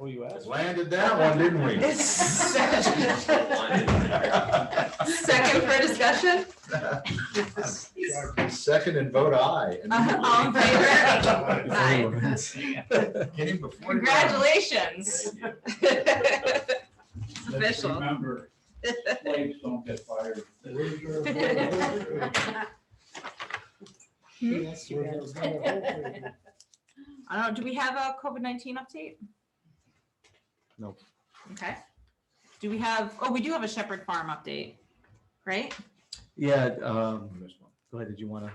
Oh, Well, you asked. Landed that one, didn't we? Second for discussion? Second and vote aye. Uh, All in favor? Aye. Get him before. Congratulations. It's Let's official. Remember, slaves don't get fired. Hmm? I don't know, do we have a COVID-19 update? Nope. Okay. Do we have, oh, we do have a Shepherd Farm update, right? Yeah, um, go ahead, did you wanna?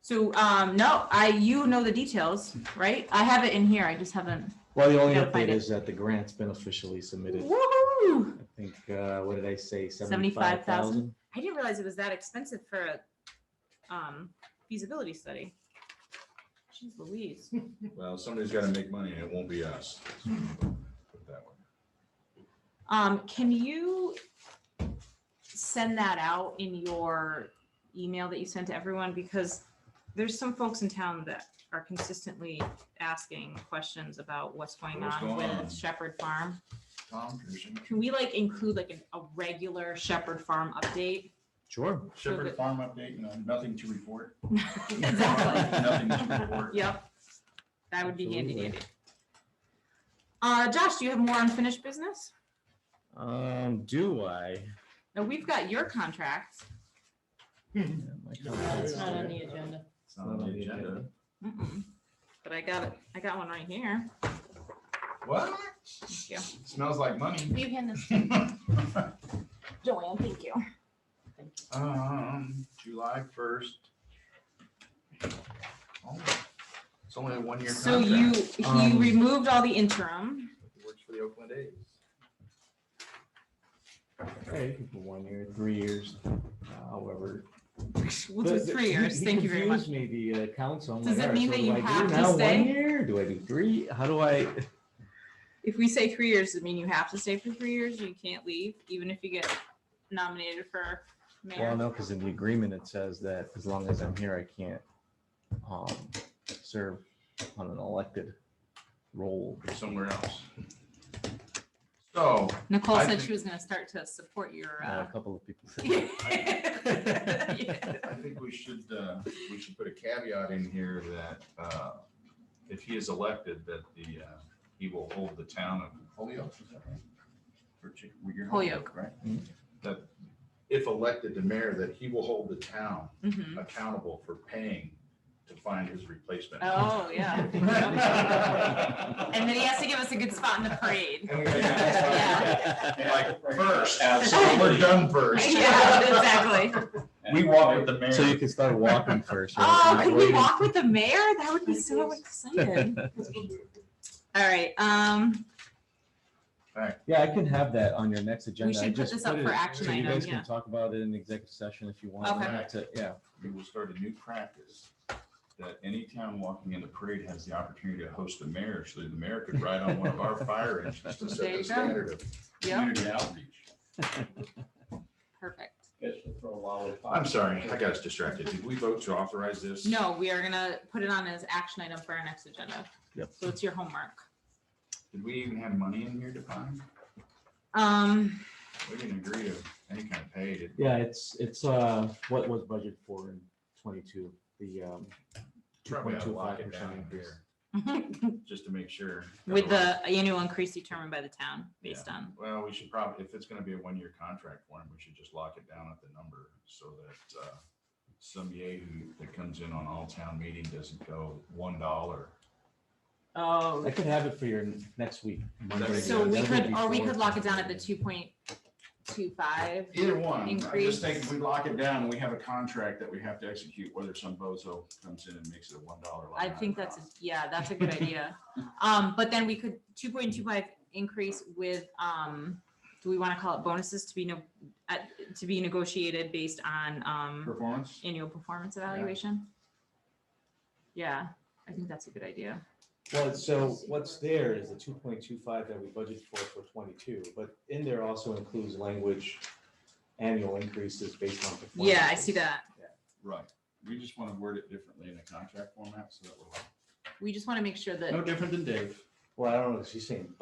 So, um, no, I, you know the details, right? I have it in here, I just haven't. Well, the only gotta find update it. is that the grant's been officially submitted. Woohoo! I think, uh, what did I say, 75,000? seventy-five thousand? I didn't realize it was that expensive for a um, feasibility study. Jeez Louise. Well, somebody's gotta make money and it won't be us. Put that one. Um, can you send that out in your email that you sent to everyone? Because there's some folks in town that are consistently asking questions about what's going What's on going on? with Shepherd Farm. Tom, Pearson. Can we like include like an- a regular Shepherd Farm update? Sure. Shepherd Farm update, no, nothing to report. Exactly. Nothing to report. Yep. That would be handy Absolutely. dandy. Uh, Josh, do you have more unfinished business? Um, do I? No, we've got your contract. Yeah, my contract's It's not on the agenda. It's not on the agenda. But I got it, I got one right here. What? you. Smells like money. You hand this, Joanne, thank you. Um, July first. Oh, It's only a one-year contract. So you, he Um, removed all the interim. Works for the Oakland A's. Hey, for one year, three years, however. We'll do three years, thank you very much. Maybe the uh, council. I'm Does like, it "All right, mean so that do you I do have to now one stay?" year? Do I do three? How do I? If we say three years, does it mean you have to stay for three years? You can't leave, even if you get nominated for Well, mayor? no, because in the agreement, it says that as long as I'm here, I can't um, serve on an elected role. or somewhere else. So, Nicole I said she think- was gonna start to support your, Uh, uh. A couple of people. said- Yeah. I think we should, uh, we should put a caveat in here that, uh, if he is elected, that the, uh, he will hold the town of Holyoke. is that right? Or Chick- well, you're Holyoke. Right? Mhm. That if elected to mayor, that he will hold the town Mhm. accountable for paying to find his replacement. Oh, yeah. And then he has to give us a good spot in the parade. And we gotta have somebody, Like first, we're done first. Yeah, exactly. We walk with the mayor. So you can start walking first. right? Oh, You're could we waiting. walk with the mayor? That would be so exciting. All right, um, Yeah, I can have that on your next agenda. I should put just this up it- for action so You item, guys yeah. can talk about it in executive session if you want. I Okay. have to- Yeah. we will start a new practice that any town walking in the parade has the opportunity to host the mayor, so the mayor could ride on one of our fire engines to There set the you go. standard of yep, community outreach. perfect. I'm sorry, I got us distracted. Did we vote to authorize this? No, we are gonna put it on as action item for our next agenda. Yep. So it's your homework. Did we even have money in here to find? Um, We didn't agree to any kind of pay. did we? Yeah, it's, it's, uh, what was budgeted for in twenty-two, the, um, two Probably ought point to two five lock it percent down increase. here, just to make sure. with Otherwise- the annual increase determined by the town based on, Well, we should probably, if it's gonna be a one-year contract for him, we should just lock it down at the number so that, uh, some yahoo that comes in on all town meeting doesn't go one dollar. oh. I could have it for your n- next week. Monday, So we Monday could, or we before. could lock it down at the two point two five. Either one, I'm Increase. just thinking, we lock it down, we have a contract that we have to execute, whether some bozo comes in and makes it a one dollar. I think that's, a- yeah, that's a good idea. Um, but then we could two point two five increase with, um, do we want to call it bonuses to be no, at, to be negotiated based on, um, Performance? annual performance evaluation? Yeah, I think that's a good idea. Well, so what's there is the two point two five that we budgeted for for twenty-two, but in there also includes language, annual increases based on. performance. Yeah, I see that. Right, we just wanna word it differently in the contract format so that we're, We just want to make sure no that, different than Dave. Well, I don't know, she's saying